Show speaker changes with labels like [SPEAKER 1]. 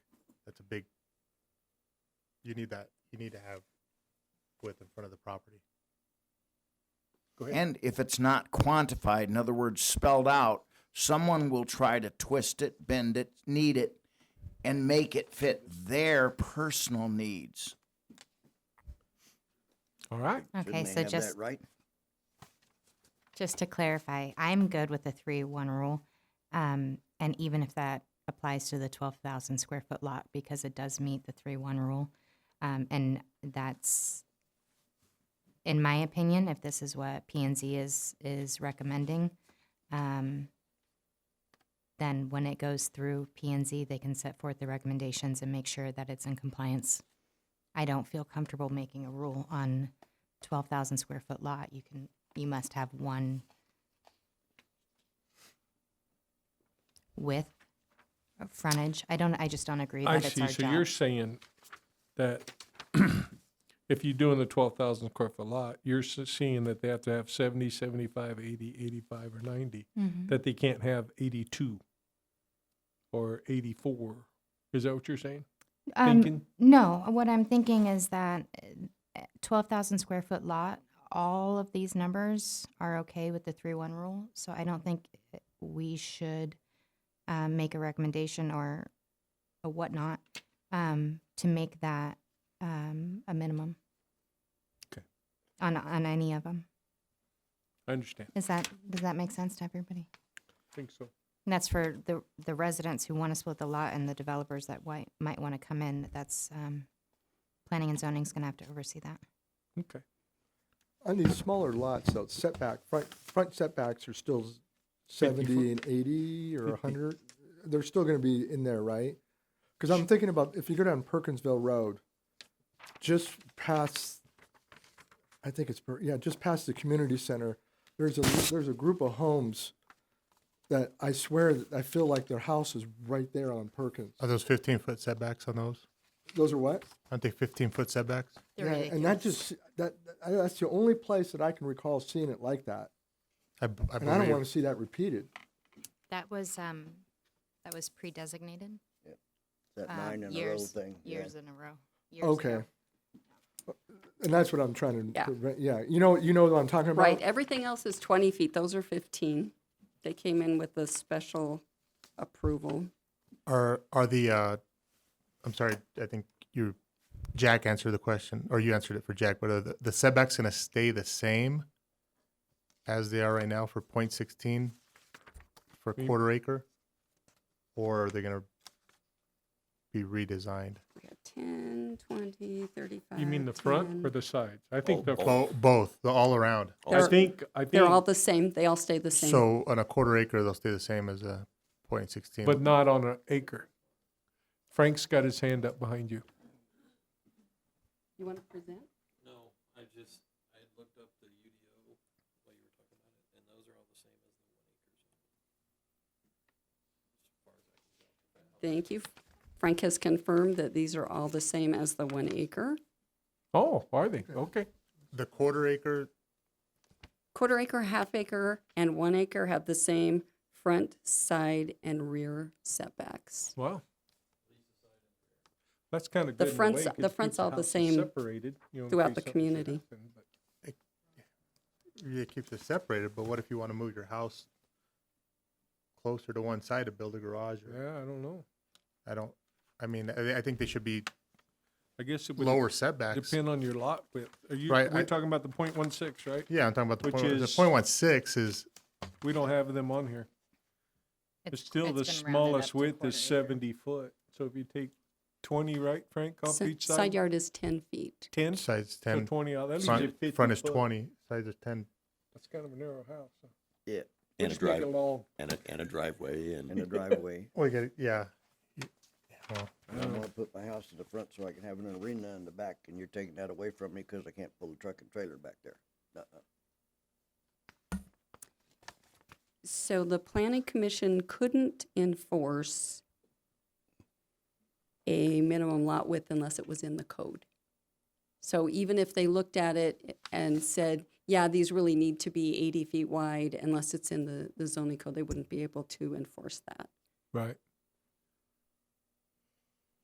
[SPEAKER 1] big. You need that. You need to have width in front of the property. Go ahead.
[SPEAKER 2] And if it's not quantified, in other words, spelled out, someone will try to twist it, bend it, knead it, and make it fit their personal needs.
[SPEAKER 3] All right.
[SPEAKER 4] Okay,
[SPEAKER 5] Shouldn't they
[SPEAKER 4] so
[SPEAKER 5] have that
[SPEAKER 4] just,
[SPEAKER 5] Right?
[SPEAKER 4] just to clarify, I'm good with the three one rule. Um, and even if that applies to the twelve thousand square foot lot, because it does meet the three one rule. Um, and that's, in my opinion, if this is what P and Z is, is recommending, um, then when it goes through P and Z, they can set forth the recommendations and make sure that it's in compliance. I don't feel comfortable making a rule on twelve thousand square foot lot. You can, you must have one width, of frontage. I don't, I just don't agree
[SPEAKER 3] I
[SPEAKER 4] that it's
[SPEAKER 3] see.
[SPEAKER 4] our
[SPEAKER 3] So you're
[SPEAKER 4] job.
[SPEAKER 3] saying that if you're doing the twelve thousand square foot lot, you're s- seeing that they have to have 70, 75, 80, 85, or ninety.
[SPEAKER 4] Mhm.
[SPEAKER 3] That they can't have eighty-two or eighty-four. Is that what you're saying?
[SPEAKER 4] Um,
[SPEAKER 3] Thinking?
[SPEAKER 4] No, what I'm thinking is that uh, 12,000 square foot lot, all of these numbers are okay with the 3 1 rule. So I don't think eh, we should um, make a recommendation or a whatnot um, to make that um, a minimum.
[SPEAKER 3] Okay.
[SPEAKER 4] On, on any of them.
[SPEAKER 3] I understand.
[SPEAKER 4] Is that, does that make sense to everybody?
[SPEAKER 3] I think so.
[SPEAKER 4] And that's for the, the residents who want to split the lot and the developers that might, might want to come in. That's, um, planning and zoning's going to have to oversee that.
[SPEAKER 3] Okay.
[SPEAKER 6] On these smaller lots, though, setback, front, front setbacks are still s-
[SPEAKER 3] 50
[SPEAKER 6] seventy and eighty or hundred. They're still gonna be in there, right? Cause I'm thinking about, if you go down Perkinsville Road, just past, I think it's, Per- yeah, just past the community center, there's a, there's a group of homes that I swear, that I feel like their house is right there on Perkins.
[SPEAKER 1] Are those fifteen foot setbacks on those?
[SPEAKER 6] Those are what?
[SPEAKER 1] Aren't they fifteen foot setbacks?
[SPEAKER 6] Yeah, And that just, that, I- that's the only place that I can recall seeing it like that.
[SPEAKER 1] I, b- I
[SPEAKER 6] And I don't wanna
[SPEAKER 1] believe.
[SPEAKER 6] see that repeated.
[SPEAKER 4] That was, um, that was pre-designated.
[SPEAKER 5] That
[SPEAKER 4] um,
[SPEAKER 5] nine in a row
[SPEAKER 4] years-
[SPEAKER 5] thing. yeah.
[SPEAKER 4] Years in a row. years ago.
[SPEAKER 6] Okay. And that's what I'm trying to,
[SPEAKER 7] Yeah.
[SPEAKER 6] prevent- yeah, you know, you know what I'm talking about?
[SPEAKER 7] Right, everything else is 20 feet, those are 15. They came in with a special approval.
[SPEAKER 1] Are are the? Uh, I'm sorry. I think you, Jack, answered the question, or you answered it for Jack. But are the, the setbacks going to stay the same as they are right now for point sixteen for
[SPEAKER 3] Mm.
[SPEAKER 1] quarter acre, or are they going to be redesigned?
[SPEAKER 7] We got 10, 20, 35.
[SPEAKER 3] You mean the front
[SPEAKER 7] 10.
[SPEAKER 3] or the sides? I think the,
[SPEAKER 1] Bo- Oh, both, the all around.
[SPEAKER 3] I
[SPEAKER 7] They're-
[SPEAKER 3] think, I
[SPEAKER 7] They're all
[SPEAKER 3] think,
[SPEAKER 7] the same, they all stay the same.
[SPEAKER 1] So on a quarter acre, they'll stay the same as a point sixteen.
[SPEAKER 3] but not on an acre. Frank's got his hand up behind you.
[SPEAKER 7] You want to present?
[SPEAKER 8] No, I just, I had looked up the UDO while you were talking about it, and those are all the same as the one acres.
[SPEAKER 7] Thank you. Frank has confirmed that these are all the same as the one acre.
[SPEAKER 3] Oh, are they? Okay.
[SPEAKER 1] the quarter acre,
[SPEAKER 7] Quarter acre, half acre, and one acre have the same front, side, and rear setbacks.
[SPEAKER 3] Wow. That's kind of
[SPEAKER 7] The
[SPEAKER 3] good. in a
[SPEAKER 7] front's-
[SPEAKER 3] way, 'cause
[SPEAKER 7] the front's
[SPEAKER 3] keep the
[SPEAKER 7] all the
[SPEAKER 3] houses
[SPEAKER 7] same
[SPEAKER 3] separated, you know, in
[SPEAKER 7] throughout
[SPEAKER 3] case
[SPEAKER 7] the
[SPEAKER 3] something should
[SPEAKER 7] community.
[SPEAKER 3] happen, but-
[SPEAKER 1] you keep this separated, but what if you want to move your house closer to one side to build a garage? Or,
[SPEAKER 3] Yeah, I don't know.
[SPEAKER 1] I don't, I mean, I, I think they should be
[SPEAKER 3] I guess it would
[SPEAKER 1] lower setbacks.
[SPEAKER 3] depend on your lot width. Are you,
[SPEAKER 1] Right,
[SPEAKER 3] we're
[SPEAKER 1] I-
[SPEAKER 3] talking about the point one six, right?
[SPEAKER 1] Yeah, I'm talking about the
[SPEAKER 3] Which
[SPEAKER 1] point, the
[SPEAKER 3] is-
[SPEAKER 1] point one six is,
[SPEAKER 3] We don't have them on here. It's still the
[SPEAKER 4] it's been rounded up
[SPEAKER 3] smallest
[SPEAKER 4] to a
[SPEAKER 3] width
[SPEAKER 4] quarter
[SPEAKER 3] is
[SPEAKER 4] acre.
[SPEAKER 3] seventy foot. So if you take twenty, right, Frank, off
[SPEAKER 7] Si-
[SPEAKER 3] each
[SPEAKER 7] Side
[SPEAKER 3] side,
[SPEAKER 7] yard is 10 feet.
[SPEAKER 3] ten, so
[SPEAKER 1] size ten,
[SPEAKER 3] twenty out, that leaves you
[SPEAKER 1] front,
[SPEAKER 3] fifty
[SPEAKER 1] front is
[SPEAKER 3] foot.
[SPEAKER 1] twenty, size is ten.
[SPEAKER 3] That's kind of a narrow house. so
[SPEAKER 5] Yeah,
[SPEAKER 3] we
[SPEAKER 9] And a
[SPEAKER 3] just make it
[SPEAKER 9] drive,
[SPEAKER 3] long.
[SPEAKER 9] and a, and a driveway and.
[SPEAKER 5] in the driveway.
[SPEAKER 1] Well, you get, yeah. Well,
[SPEAKER 5] And I'm gonna put my house in the front so I can have an arena in the back, and you're taking that away from me because I can't pull a truck and trailer back there. Uh-uh.
[SPEAKER 7] So the planning commission couldn't enforce a minimum lot width unless it was in the code. So even if they looked at it and said, yeah, these really need to be 80 feet wide unless it's in the, the zoning code, they wouldn't be able to enforce that.
[SPEAKER 3] Right.